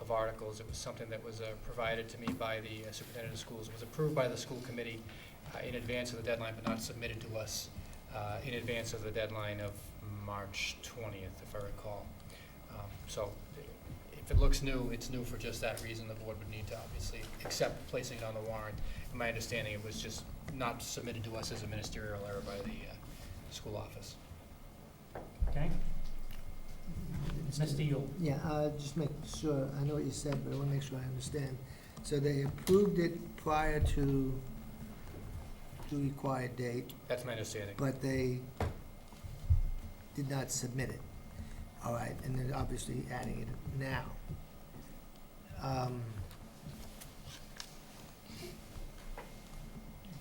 of articles. It was something that was uh, provided to me by the uh, superintendent of schools. It was approved by the school committee uh, in advance of the deadline, but not submitted to us uh, in advance of the deadline of March 20th, if I recall. Um, So if it looks new, it's new for just that reason. The board would need to obviously accept placing it on the warrant. In My understanding, it was just not submitted to us as a ministerial error by the uh, school office. Okay? Mr. Yule, Yeah, uh, just make sure, I know what you said, but I want to make sure I understand. So they approved it prior to the required date, That's my understanding. but they did not submit it. All right, and then obviously adding it now. Um,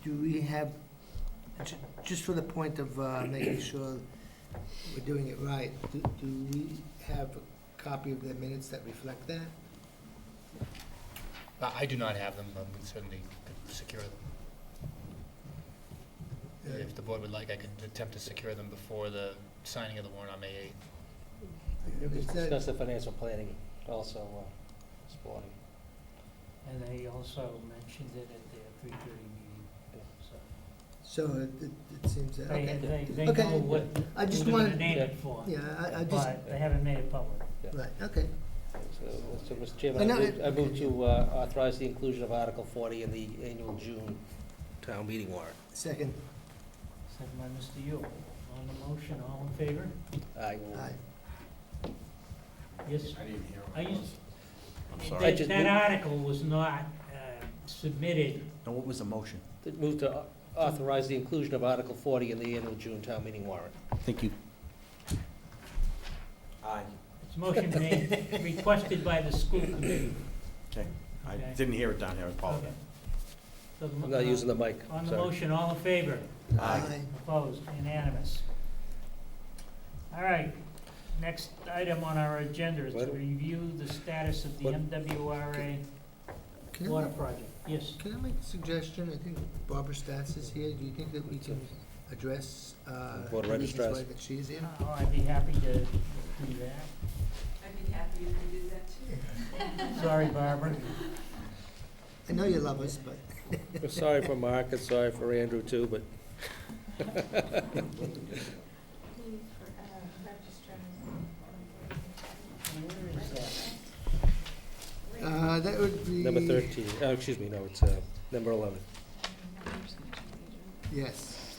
Do we have, ju- just for the point of uh, making sure we're doing it right, do do we have a copy of the minutes that reflect that? I I do not have them, but we certainly could secure them. If the board would like, I could attempt to secure them before the signing of the warrant on May 8th. Is that- Discuss the financial planning also, uh, supporting. and they also mentioned it at their three thirty meeting, so. So it- it it seems, that- They, okay. they, they Okay. know what I just we're gonna wanted, name it for, yeah, I- I just, but they haven't made it public. right, okay. So, so, Mr. Chairman, Uh, I no, move, I it- move to uh, authorize the inclusion of Article forty in the annual June town meeting warrant. Second, Second by Mr. Yule. On the motion, all in favor? I, aye. Yes. I didn't hear what I it used- was. I'm That- I sorry. just That moved- article was not uh, submitted, No, what was the motion? move to au- authorize the inclusion of Article forty in the annual June town meeting warrant. Thank you. Aye. it's motion made, requested by the school committee. Okay. I Okay. didn't hear it down here, I apologize. So the mo- uh, I'm not using the mic, On the sorry. motion, all in favor? Aye. Opposed, unanimous. All right, next item on our agenda is to What? review the status of the What? MWRA Can I water make- project. Yes, Can I make a suggestion? I think Barbara Stats is here. Do you think that we can address uh, Board the reasons registrars. why that she's here? Oh, I'd be happy to do that. I'd be happy if we did that too. Sorry, Barbara. I know you love us, but I'm Sorry for Mark, and sorry for Andrew too, but Where is that? uh, that would be... number thirteen, oh, excuse me, no, it's, uh, number eleven. Yes.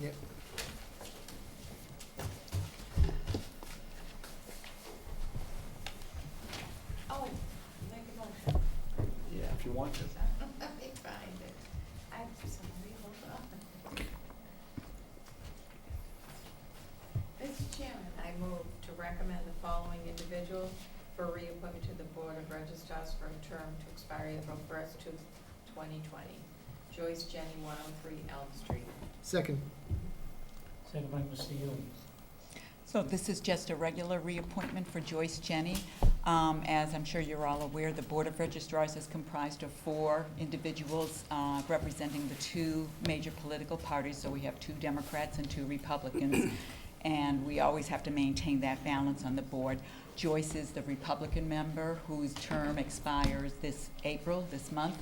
Yep. Oh, make a motion. Yeah, if you want to. Let me find it. I'm sorry, hold on. Mr. Chairman, I move to recommend the following individual for reappointment to the Board of Registars for a term to expire April first, two, twenty twenty. Joyce Jenny, one oh three Elm Street. Second, Second by Mr. Yule. So this is just a regular reappointment for Joyce Jenny. Um, As I'm sure you're all aware, the Board of Registrars is comprised of four individuals uh, representing the two major political parties. So we have two Democrats and two Republicans, and we always have to maintain that balance on the board. Joyce is the Republican member whose term expires this April, this month.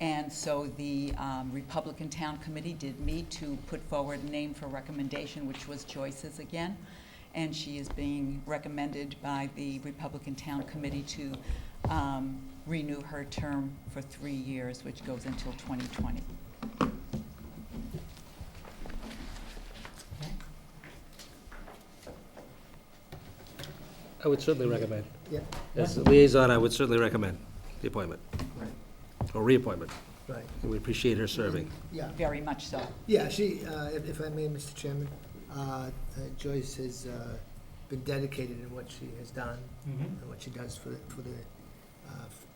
And so the um, Republican Town Committee did meet to put forward a name for recommendation, which was Joyce's again. And she is being recommended by the Republican Town Committee to um, renew her term for three years, which goes until 2020. I would certainly recommend. Yeah. As a liaison, I would certainly recommend the appointment, right, or reappointment. right. We appreciate her serving. Yeah, Very much so. yeah, she, uh, if if I may, Mr. Chairman, uh, uh, Joyce has uh, been dedicated in what she has done Mhm. and what she does for, for the, uh, f-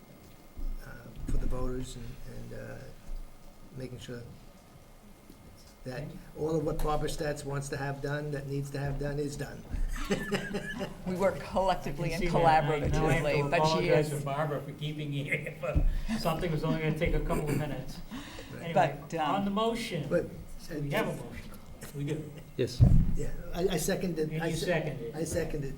uh, for the voters and, and, uh, making sure that all of what Barbara Stats wants to have done, that needs to have done, is done. We work collectively You and see that, I- now I have to collaboratively, but she apologize is. to Barbara for keeping you here, but something was only gonna take a couple of minutes. Anyway, But, um, on the motion, But- uh, we have a motion, we do, Yes. Yeah, I, I seconded, and I, you se- seconded. I seconded.